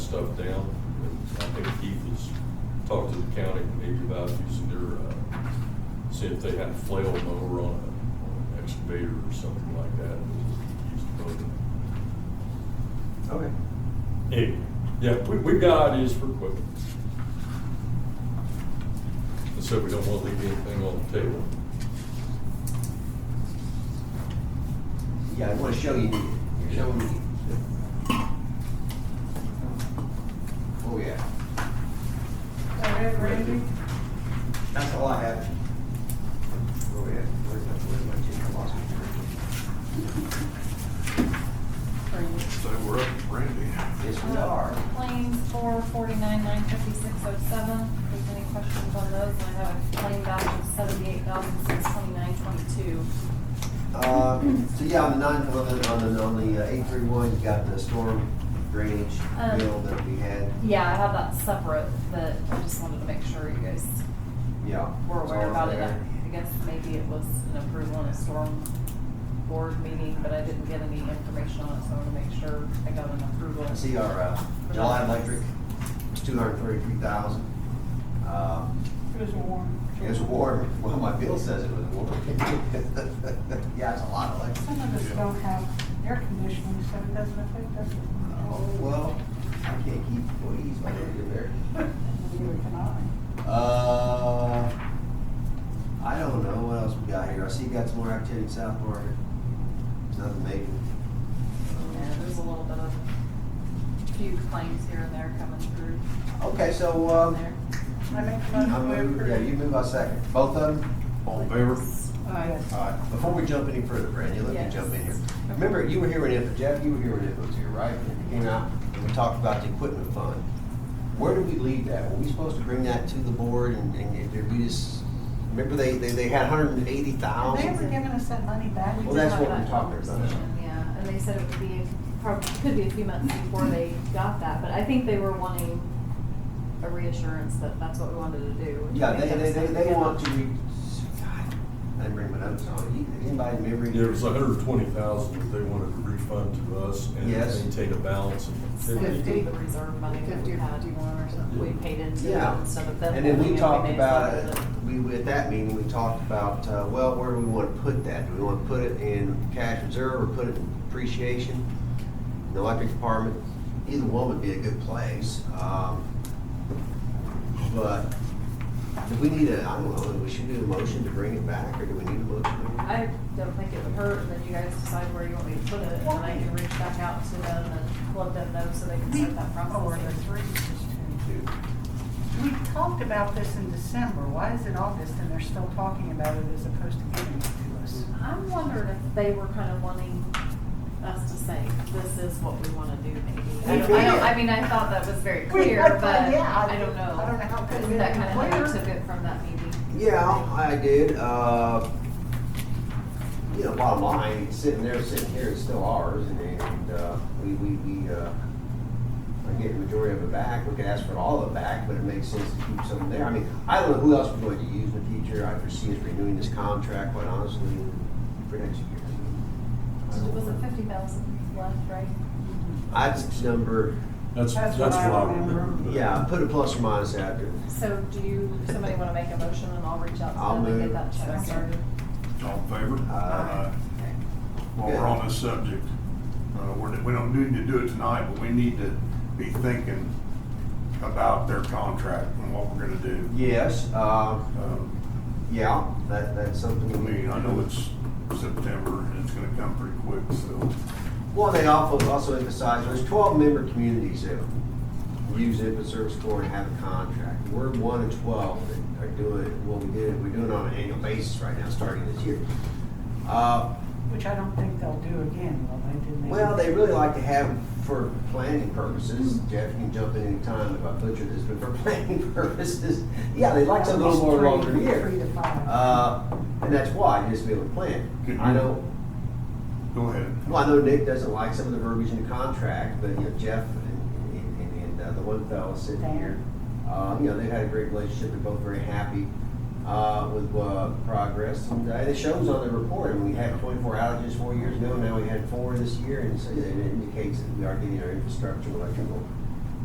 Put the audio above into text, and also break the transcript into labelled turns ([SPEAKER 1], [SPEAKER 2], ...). [SPEAKER 1] stuff down. And I think Keith has talked to the county maybe about using their, uh, see if they had a flail mower on a- on an excavator or something like that. Use the mower.
[SPEAKER 2] Okay.
[SPEAKER 1] Anyway, yeah, we, we got ideas for equipment. And so we don't want to leave anything on the table.
[SPEAKER 2] Yeah, I want to show you, you're showing me. Oh, yeah.
[SPEAKER 3] Whatever, Randy.
[SPEAKER 2] That's all I have. Oh, yeah. Where's my, where's my chicken? I lost it.
[SPEAKER 4] So we're up, Randy.
[SPEAKER 2] Yes, we are.
[SPEAKER 3] Claims four forty-nine, nine fifty-six oh seven. If there's any questions on those, I have a claim balance of seventy-eight thousand, six twenty-nine, twenty-two.
[SPEAKER 2] Um, so yeah, on the nine, on the, on the, on the uh, eight three one, you got the storm drainage
[SPEAKER 3] Um,
[SPEAKER 2] bill that we had.
[SPEAKER 3] Yeah, I have that separate, but I just wanted to make sure you guys
[SPEAKER 2] Yeah.
[SPEAKER 3] were
[SPEAKER 2] it's
[SPEAKER 3] aware
[SPEAKER 2] all
[SPEAKER 3] about it. I
[SPEAKER 2] there.
[SPEAKER 3] I guess maybe it was an approval on a storm board meeting, but I didn't get any information on it, so I want to make sure I got an approval.
[SPEAKER 2] I see our, uh, July electric, it's two hundred thirty-three thousand. Um,
[SPEAKER 5] It was warm.
[SPEAKER 2] It was warm. Well, my bill says it was warm. Yeah, it's a lot of like,
[SPEAKER 5] Some of us don't have air conditioning, so it doesn't affect us.
[SPEAKER 2] oh, well, I can't keep employees when they're there.
[SPEAKER 5] Neither can I.
[SPEAKER 2] Uh, I don't know. What else we got here? I see you got some more activity in South Market. Nothing major.
[SPEAKER 3] Yeah, there's a little bit of, a few claims here and there coming through
[SPEAKER 2] Okay, so,
[SPEAKER 3] on
[SPEAKER 2] um,
[SPEAKER 3] there.
[SPEAKER 5] I make a
[SPEAKER 2] I
[SPEAKER 5] motion to
[SPEAKER 2] move, yeah, you
[SPEAKER 5] approve.
[SPEAKER 2] move by second. Both of them?
[SPEAKER 4] All in favor?
[SPEAKER 5] Aye.
[SPEAKER 2] All right, before we jump any further, Brandy, let me
[SPEAKER 3] Yes.
[SPEAKER 2] jump in here. Remember, you were here when Info, Jeff, you were here when Info was here, right? And we came out and we talked about the equipment fund. Where did we leave that? Were we supposed to bring that to the board and, and did we just, remember they, they, they had hundred and eighty
[SPEAKER 5] Have they
[SPEAKER 2] thousand?
[SPEAKER 5] ever given us that money back?
[SPEAKER 2] Well, that's what
[SPEAKER 3] Have
[SPEAKER 2] we're
[SPEAKER 3] that
[SPEAKER 2] talking about.
[SPEAKER 3] conversation, Yeah, and they said it would be, probably, could be a few months before they got that, but I think they were wanting a reassurance that that's what we wanted to do.
[SPEAKER 2] Yeah, they, they, they, they want to, re- God, I didn't bring my notes on. You- Anybody remember?
[SPEAKER 1] There was hundred and twenty thousand that they wanted to refund to us and
[SPEAKER 2] Yes.
[SPEAKER 1] maintain a balance of
[SPEAKER 3] So
[SPEAKER 1] fifty.
[SPEAKER 3] it'd be the reserve money that we
[SPEAKER 5] Fifty.
[SPEAKER 3] had, you want, or something, we paid into
[SPEAKER 2] Yeah.
[SPEAKER 3] instead of them.
[SPEAKER 2] And then
[SPEAKER 3] holding
[SPEAKER 2] we
[SPEAKER 3] it,
[SPEAKER 2] talked
[SPEAKER 3] made
[SPEAKER 2] about,
[SPEAKER 3] some of
[SPEAKER 2] it. we, at that meeting, we talked about, uh, well, where do we want to put that? Do we want to put it in cash reserve or put it in depreciation? In the electric department, either one would be a good place. Um, But do we need a, I don't know, we should do a motion to bring it back or do we need a motion?
[SPEAKER 3] I don't think it would hurt, and then you guys decide where you want me to put it, and then I can reach back out to them and let them know so they can
[SPEAKER 5] We,
[SPEAKER 3] start that
[SPEAKER 5] or the
[SPEAKER 3] process.
[SPEAKER 5] three, just two. We talked about this in December. Why is it August and they're still talking about it as opposed to giving it to us?
[SPEAKER 3] I'm wondering if they were kind of wanting us to say, this is what we want to do maybe. I don't, I don't, I mean, I thought that was
[SPEAKER 5] We-
[SPEAKER 3] very
[SPEAKER 5] I
[SPEAKER 3] clear,
[SPEAKER 5] thought,
[SPEAKER 3] but
[SPEAKER 5] yeah,
[SPEAKER 3] I
[SPEAKER 5] I-
[SPEAKER 3] don't know.
[SPEAKER 5] I don't know how could it
[SPEAKER 3] That
[SPEAKER 5] be
[SPEAKER 3] kind of how I
[SPEAKER 5] clear.
[SPEAKER 3] took it from that meeting.
[SPEAKER 2] Yeah, I did. Uh, you know, bottom line, sitting there, sitting here, it's still ours, and, and uh, we, we, we uh, are getting the majority of it back. We could ask for all of it back, but it makes sense to keep some there. I mean, I don't know who else we're going to use in the future. I foresee us renewing this contract, quite honestly, for next year. I don't
[SPEAKER 3] Was
[SPEAKER 2] know.
[SPEAKER 3] it fifty thousand left, right?
[SPEAKER 2] That's number,
[SPEAKER 1] That's,
[SPEAKER 5] That's
[SPEAKER 1] that's
[SPEAKER 5] what
[SPEAKER 1] what
[SPEAKER 5] I
[SPEAKER 1] I
[SPEAKER 5] remember.
[SPEAKER 1] remember. but-
[SPEAKER 2] yeah, put a plus or minus after it.
[SPEAKER 3] So do you, somebody want to make a motion and I'll reach out
[SPEAKER 2] I'll
[SPEAKER 3] to them
[SPEAKER 2] move.
[SPEAKER 3] and get that check
[SPEAKER 5] Second.
[SPEAKER 3] started?
[SPEAKER 4] All in favor?
[SPEAKER 2] Uh,
[SPEAKER 4] While we're on this subject, uh, we're, we don't need to do it tonight, but we need to be thinking about their contract and what we're gonna do.
[SPEAKER 2] yes, uh,
[SPEAKER 4] Um,
[SPEAKER 2] yeah, that, that's something.
[SPEAKER 4] I mean, I know it's September and it's gonna come pretty quick, so.
[SPEAKER 2] Well, they also, also emphasize, there's twelve member communities that use IPA service corps and have a contract. We're one of twelve that are doing, it. well, we did, it- we're doing it on an annual basis right now, starting this year. Uh,
[SPEAKER 5] Which I don't think they'll do again, will they? Didn't they?
[SPEAKER 2] well, they really like to have for planning purposes, Jeff, you can jump in anytime if I butcher this, but for planning purposes, yeah, they like something a little more longer
[SPEAKER 5] Three- Three
[SPEAKER 2] year.
[SPEAKER 5] to five.
[SPEAKER 2] Uh, and that's why, just to be able to plan. I know,
[SPEAKER 4] Go ahead.
[SPEAKER 2] Well, I know Nick doesn't like some of the verbiage in the contract, but, you know, Jeff and, and, and- and uh, the one fellow sitting here, uh, you know, they've had a great relationship, they're both very happy, uh, with, uh, progress, and uh, it shows on the report, and we had twenty-four outages four years ago, now we had four this year, and so it indicates that we are getting our infrastructure, electrical,